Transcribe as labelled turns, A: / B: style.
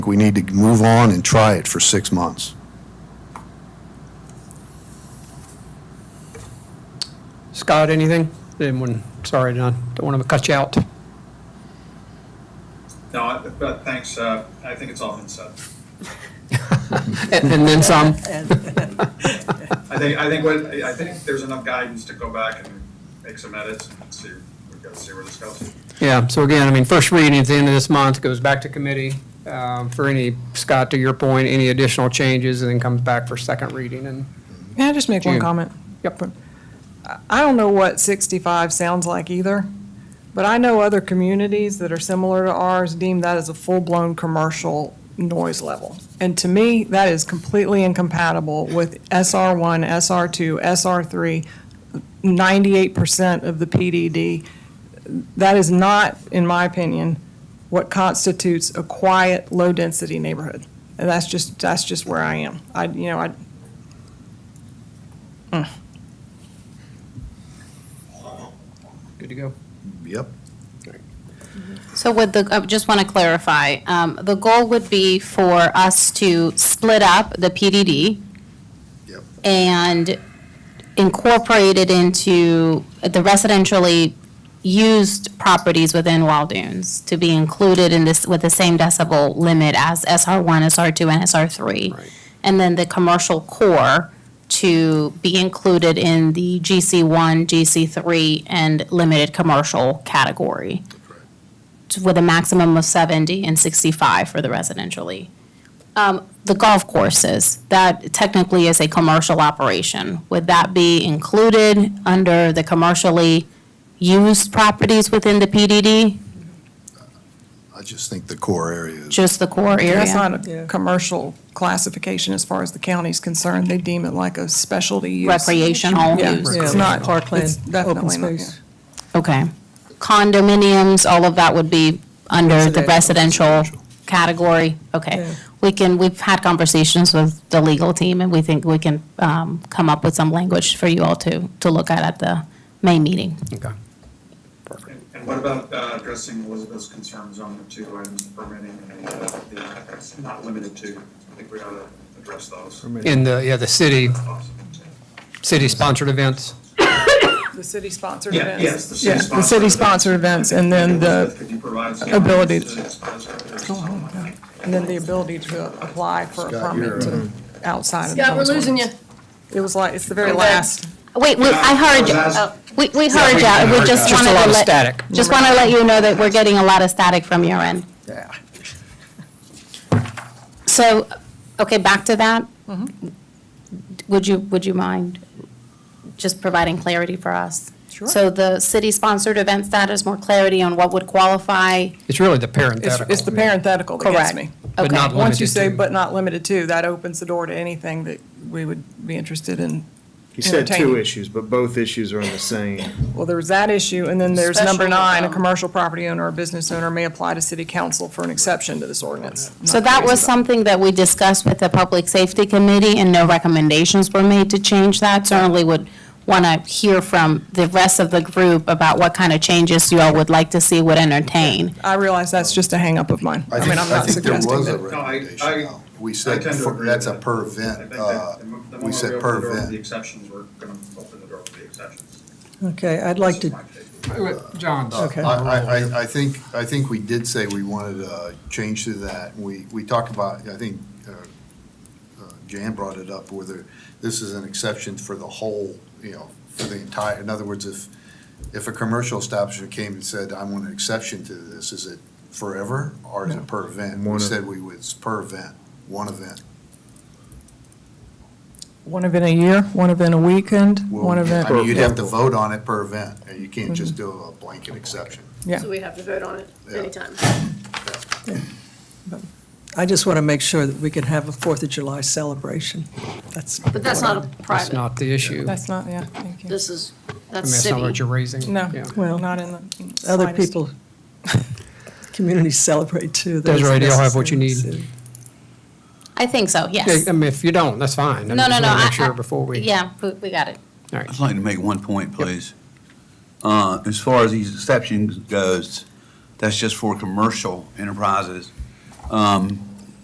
A: We need to move on and try it for six months.
B: Scott, anything? Anyone, sorry, Don, don't want to cut you out.
C: No, I- but thanks, uh, I think it's all been said.
B: And and then some.
C: I think, I think what, I think there's enough guidance to go back and make some edits and see, we've got to see where this goes.
B: Yeah, so again, I mean, first reading at the end of this month goes back to committee um, for any, Scott, to your point, any additional changes, and then comes back for second reading. And
D: Can I just make one
B: June.
D: comment? Yep. I don't know what 65 sounds like either, but I know other communities that are similar to ours deem that as a full-blown commercial noise level. And to me, that is completely incompatible with SR1, SR2, SR3, 98% of the PDD. That is not, in my opinion, what constitutes a quiet, low-density neighborhood. And that's just, that's just where I am. I, you know, I,
B: Good to go.
A: Yep.
E: So would the, I just want to clarify, um, the goal would be for us to split up the PDD
A: Yep.
E: and incorporate it into the residentially used properties within Waldoons to be included in this, with the same decibel limit as SR one, SR two, and SR three.
B: Right.
E: And then the commercial core to be included in the GC one, GC three, and limited commercial category with a maximum of 70 and 65 for the residentially. Um, The golf courses, that technically is a commercial operation. Would that be included under the commercially used properties within the PDD,
A: I just think the core area is.
E: just the core
D: That's
E: area?
D: not a commercial classification as far as the county's concerned. They deem it like a specialty use.
E: Recreational
D: Yeah,
E: use?
D: it's not.
F: Parkland,
D: it's
F: open
D: definitely not, yeah.
F: space.
E: Okay. Condominiums, all of that would be under the
A: Residential.
E: residential category? Okay.
F: Yeah.
E: We can, we've had conversations with the legal team, and we think we can um, come up with some language for you all to, to look at at the May meeting.
B: Okay.
C: And- And what about uh, addressing Elizabeth's concerns on the two items permitting and uh, the, it's not limited to, I think we ought to address those.
B: In the, yeah, the city, city-sponsored events.
D: The city-sponsored
C: Yeah,
D: events.
C: yes, the
D: Yeah,
C: city-sponsored.
D: The city-sponsored events, and then
C: Elizabeth,
D: the,
C: could you provide some
D: ability Oh,
C: guidance to sponsor this?
D: and then the ability to apply for a
A: Scott, you're,
D: permit to outside of the.
G: Scott, we're
D: noise
G: losing you.
D: ordinance. It was like, it's the very last.
E: Wait, we, I heard you.
C: Yeah.
E: Oh, We, we heard you. We just
B: Just a
E: wanted to let.
B: lot of static.
E: Just want to let you know that we're getting a lot of static from your end.
D: Yeah.
E: So, okay, back to that. Would you, would you mind just providing clarity for us?
D: Sure.
E: So the city-sponsored event status, more clarity on what would qualify?
B: It's really the
D: It's,
B: parenthetical.
D: it's the parenthetical that gets
E: Correct.
D: me.
B: But
E: Okay.
B: not
D: Once you
B: limited
D: say,
B: to.
D: but not limited to, that opens the door to anything that we would be interested in.
H: He said two
D: Entertaining.
H: issues, but both issues are in the same.
D: Well, there was that issue, and then there's number
G: Special,
D: nine, a
G: um,
D: commercial property owner or business owner may apply to city council for an exception to this ordinance.
E: So that was
D: something.
E: something that we discussed with the Public Safety Committee, and no recommendations were made to change that. Certainly would want to hear from the rest of the group about what kind of changes you all would like to see would entertain.
D: I realize that's just a hangup of mine. I mean, I'm not
A: there
D: suggesting
A: was a
D: that.
C: No, I-
A: recommendation.
C: I-
A: though. We
C: I
A: said,
C: tend to
A: for-
C: agree
A: that's a
C: with it.
A: per
C: I think
A: event,
C: that
A: uh,
C: the mo- the
A: we
C: more
A: said
C: open
A: per
C: the door to The
A: event.
C: exceptions, we're going to open the door to the exceptions.
F: Okay, I'd like to,
B: John.
A: Uh, I, I- I, I think, I think we did say we wanted a change to that. We, we talked about, I think, uh, uh, Jan brought it up, whether this is an exception for the whole, you know, for the entire, in other words, if, if a commercial establishment came and said, I want an exception to this, is it forever or is it per event? We
H: One of-
A: said we was per event, one event.
D: One event a year, one event a weekend,
A: Well,
D: one event. Mm-hmm.
A: I mean, you'd have to vote on it per event, and you can't just do a blanket exception.
D: Yeah.
G: So we have to vote on it
A: Yeah.
G: anytime.
F: I just want to make sure that we can have a Fourth of July celebration. That's.
G: But that's not a
B: That's
G: private,
B: not the issue. I mean,
D: That's not, yeah, thank you.
G: this is, that's
B: that's not what
G: city.
B: you're raising.
D: No,
B: Yeah.
F: Well,
D: not in the slightest.
F: Other people, communities celebrate too. That's
B: Desiree, do y'all have what you
F: necessary.
E: I think so,
B: Yeah,
E: yes.
B: I mean, if you don't, that's fine. I mean,
E: No, no,
B: just
E: no.
B: wanna
E: I-
B: Make
E: I-
B: sure before we.
E: Yeah, we, we got it.
B: All right.
I: I'd like to make one point, please. Uh, As far as these exceptions goes, that's just for commercial enterprises. Um,